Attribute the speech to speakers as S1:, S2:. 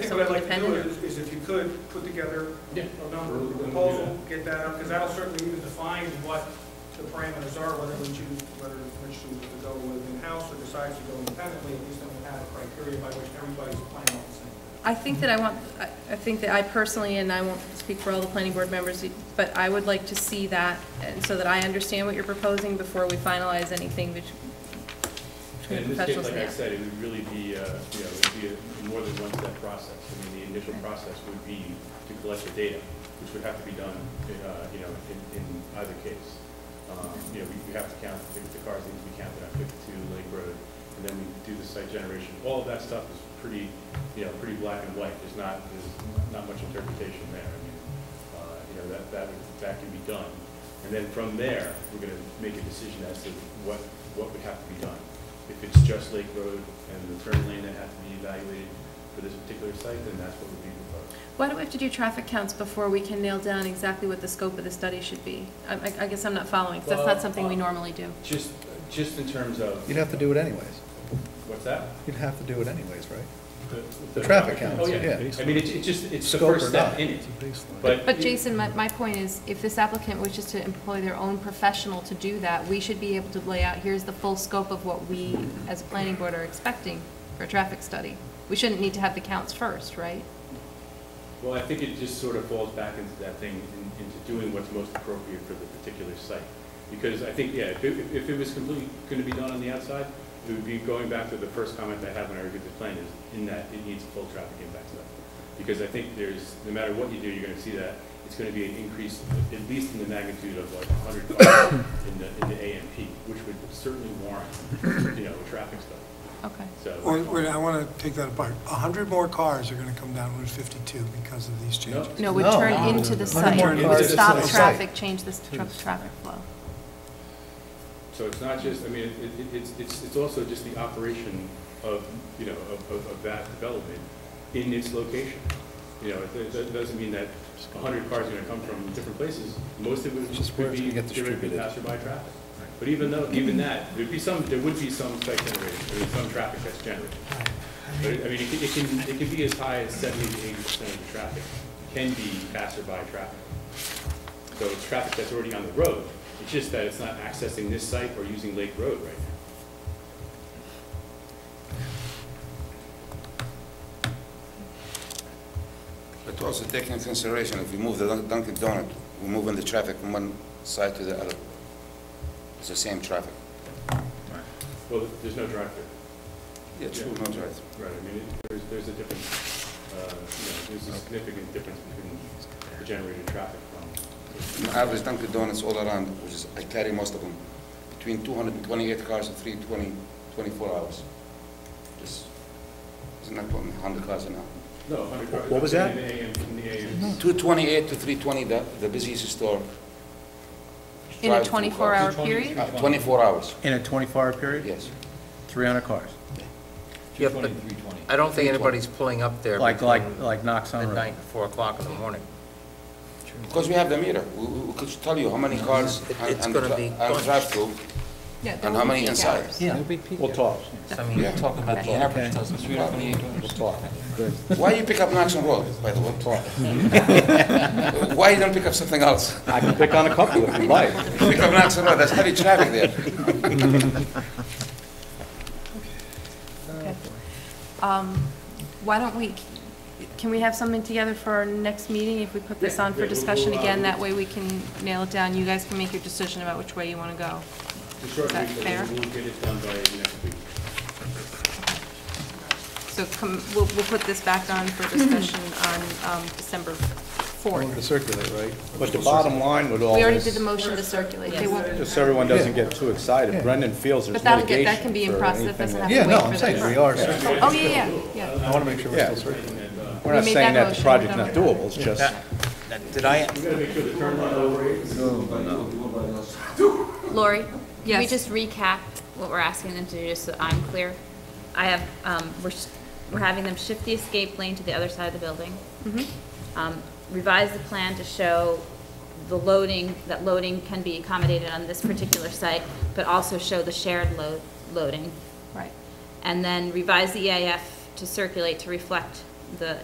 S1: think what I'd like to do
S2: independent?
S1: is, is if you could, put together
S3: Yeah.
S1: a number, a proposal, get that out, because that'll certainly even define what the parameters are, whether we choose, whether we choose to go with in-house or decide to go independently, at least then we have a criteria by which everybody's playing on the same.
S2: I think that I want, I I think that I personally, and I won't speak for all the planning board members, but I would like to see that, and so that I understand what you're proposing before we finalize anything bet-
S3: And
S2: between
S3: in this case,
S2: professionals
S3: like
S2: and
S3: I
S2: the app.
S3: said, it would really be, uh, you know, it would be a more than one step process. I mean, the initial process would be to collect the data, which would have to be done, uh, you know, in, in either case. Um, You know, we we have to count, the the cars need to be counted on fifty-two Lake Road, and then we do the site generation. All of that stuff is pretty, you know, pretty black and white. There's not, there's not much interpretation there. I mean, uh, you know, that, that, would- that can be done. And then from there, we're gonna make a decision as to what, what would have to be done. If it's just Lake Road and the turn lane that has to be evaluated for this particular site, then that's what would be proposed.
S2: Why do we have to do traffic counts before we can nail down exactly what the scope of the study should be? I- I I guess I'm not following, 'cause that's
S3: Well,
S2: not something we
S3: uh,
S2: normally do.
S3: Just, just in terms of,
S4: You'd have to do it anyways.
S3: what's that?
S4: You'd have to do it anyways, right? The traffic counts,
S3: Oh,
S4: yeah.
S3: I mean, it's, it's just, it's the
S4: Scope
S3: first
S4: or
S3: step
S4: not.
S3: in it, but.
S2: But Jason, my, my point is, if this applicant wishes to employ their own professional to do that, we should be able to lay out, here's the full scope of what we, as a planning board, are expecting for a traffic study. We shouldn't need to have the counts first, right?
S3: Well, I think it just sort of falls back into that thing, in- into doing what's most appropriate for the particular site. Because I think, yeah, if it, if it was completely going to be done on the outside, it would be going back to the first comment I had when I reviewed the plan, is in that it needs a full traffic impact study. Because I think there's, no matter what you do, you're going to see that it's going to be an increase, at least in the magnitude of like 100 cars in the, in the AMP, which would certainly warrant, you know, a traffic study.
S2: Okay.
S5: Wait,
S3: So,
S5: wait, I want to take that apart. A hundred more cars are going to come down Route 52 because of these
S3: no,
S5: changes.
S2: No, would
S4: No.
S2: turn into the
S4: Turn
S2: site,
S4: into
S5: the
S2: stop
S5: site.
S2: traffic, change the tra- traffic flow.
S3: So it's not just, I mean, it, it, it's, it's, it's also just the operation of, you know, of, of, of that development in its location. You know, it, it doesn't mean that a hundred cars are gonna come from different places, most of
S4: It's just
S3: it
S4: where
S3: would
S4: it's
S3: be,
S4: gonna get
S3: there would be
S4: distributed.
S3: passerby traffic. But even though, even that, there'd be some, there would be some site generated, there some traffic that's generated. But, it- I mean, it can, it can, it can be as high as seventy to eighty percent of the traffic can be passerby traffic. So it's traffic that's already on the road, it's just that it's not accessing this site or using Lake Road right now.
S6: But also taking into consideration, if we move the Dun- Dunkin' Donut, we're moving the traffic from one side to the other. It's the same traffic.
S3: Well, there's no drive-through.
S6: Yeah, true, no drive.
S3: Right, I mean, it- there's, there's a difference, uh, you know, there's a significant difference between the generated traffic from.
S6: On average Dunkin' Donuts all around, which is, I carry most of them, between 228 cars and 320, 24 hours. Just, isn't that 100 cars an hour?
S3: No, 100 cars.
S4: What was that?
S3: In the AM, in the AM.
S6: 228 to 320, the the busiest store.
S2: In a
S6: Drive-through cars.
S2: twenty-four hour period?
S6: Uh, 24 hours,
S7: In a 24-hour period?
S6: yes.
S7: 300 cars?
S8: Yeah, but I don't think anybody's pulling up there
S7: Like, like, uh,
S8: between
S7: like Knox on
S8: midnight
S7: Road?
S8: and 4 o'clock in the morning.
S6: Because we have the meter, we we- we could tell you how many cars
S8: It-
S6: and
S8: it's
S6: and
S8: gonna
S6: dri-
S8: be
S6: and
S8: bunch.
S6: drive-through.
S2: Yeah, there
S6: And
S2: will
S6: how
S2: be
S6: many
S2: peak
S6: inside?
S2: hours.
S7: Yeah, we'll talk,
S8: So I mean, you're
S6: Yeah.
S8: talking about the
S6: Okay.
S8: average dozen.
S7: we'll talk.
S6: Why you pick up Knox and Roll, by the way? Why you don't pick up something else?
S7: I can pick on a couple if you like.
S6: Pick up Knox and Roll, there's heavy traffic there.
S2: Okay. Um, Why don't we, can we have something together for our next meeting if we put this
S3: Yeah,
S2: on
S3: yeah,
S2: for
S3: we'll-
S2: discussion
S3: we'll, uh,
S2: again? That way we can nail it down. You guys can make your decision about which way you want to go.
S3: The short
S2: Is that
S3: week, but
S2: fair?
S3: We'll get it done by next week.
S2: So come, we'll, we'll put this back on for discussion on um, December
S4: Want to
S2: 4th.
S4: circulate, right?
S7: But the bottom line with all
S2: We already did
S7: this,
S2: the motion to circulate. They won't,
S7: just so everyone doesn't get too excited, Brendan feels there's
S2: but that'll get, that can
S7: litigation
S2: be in
S7: for
S2: process. That doesn't
S7: anything. that-
S2: have
S4: Yeah,
S2: to
S4: no,
S2: wait for
S4: I'm
S2: the
S4: saying, we
S2: first.
S4: are, circulating.
S2: Oh, yeah, yeah, yeah.
S4: I want to make sure we're
S7: Yeah.
S4: still circulating.
S7: We're not
S2: We made that
S7: saying that the
S2: motion,
S7: project's
S2: we're
S7: not
S2: done with
S7: doable, it's just,
S8: Did I,
S3: We gotta make sure the turn lane operates.
S9: Lori? Can we
S2: Yes.
S9: just recap what we're asking them to do, just so I'm clear? I have, um, we're, sh- we're having them shift the escape lane to the other side of the building. Um, Revise the plan to show the loading, that loading can be accommodated on this particular site, but also show the shared load, loading.
S2: Right.
S9: E And then revise the EAF to circulate to reflect the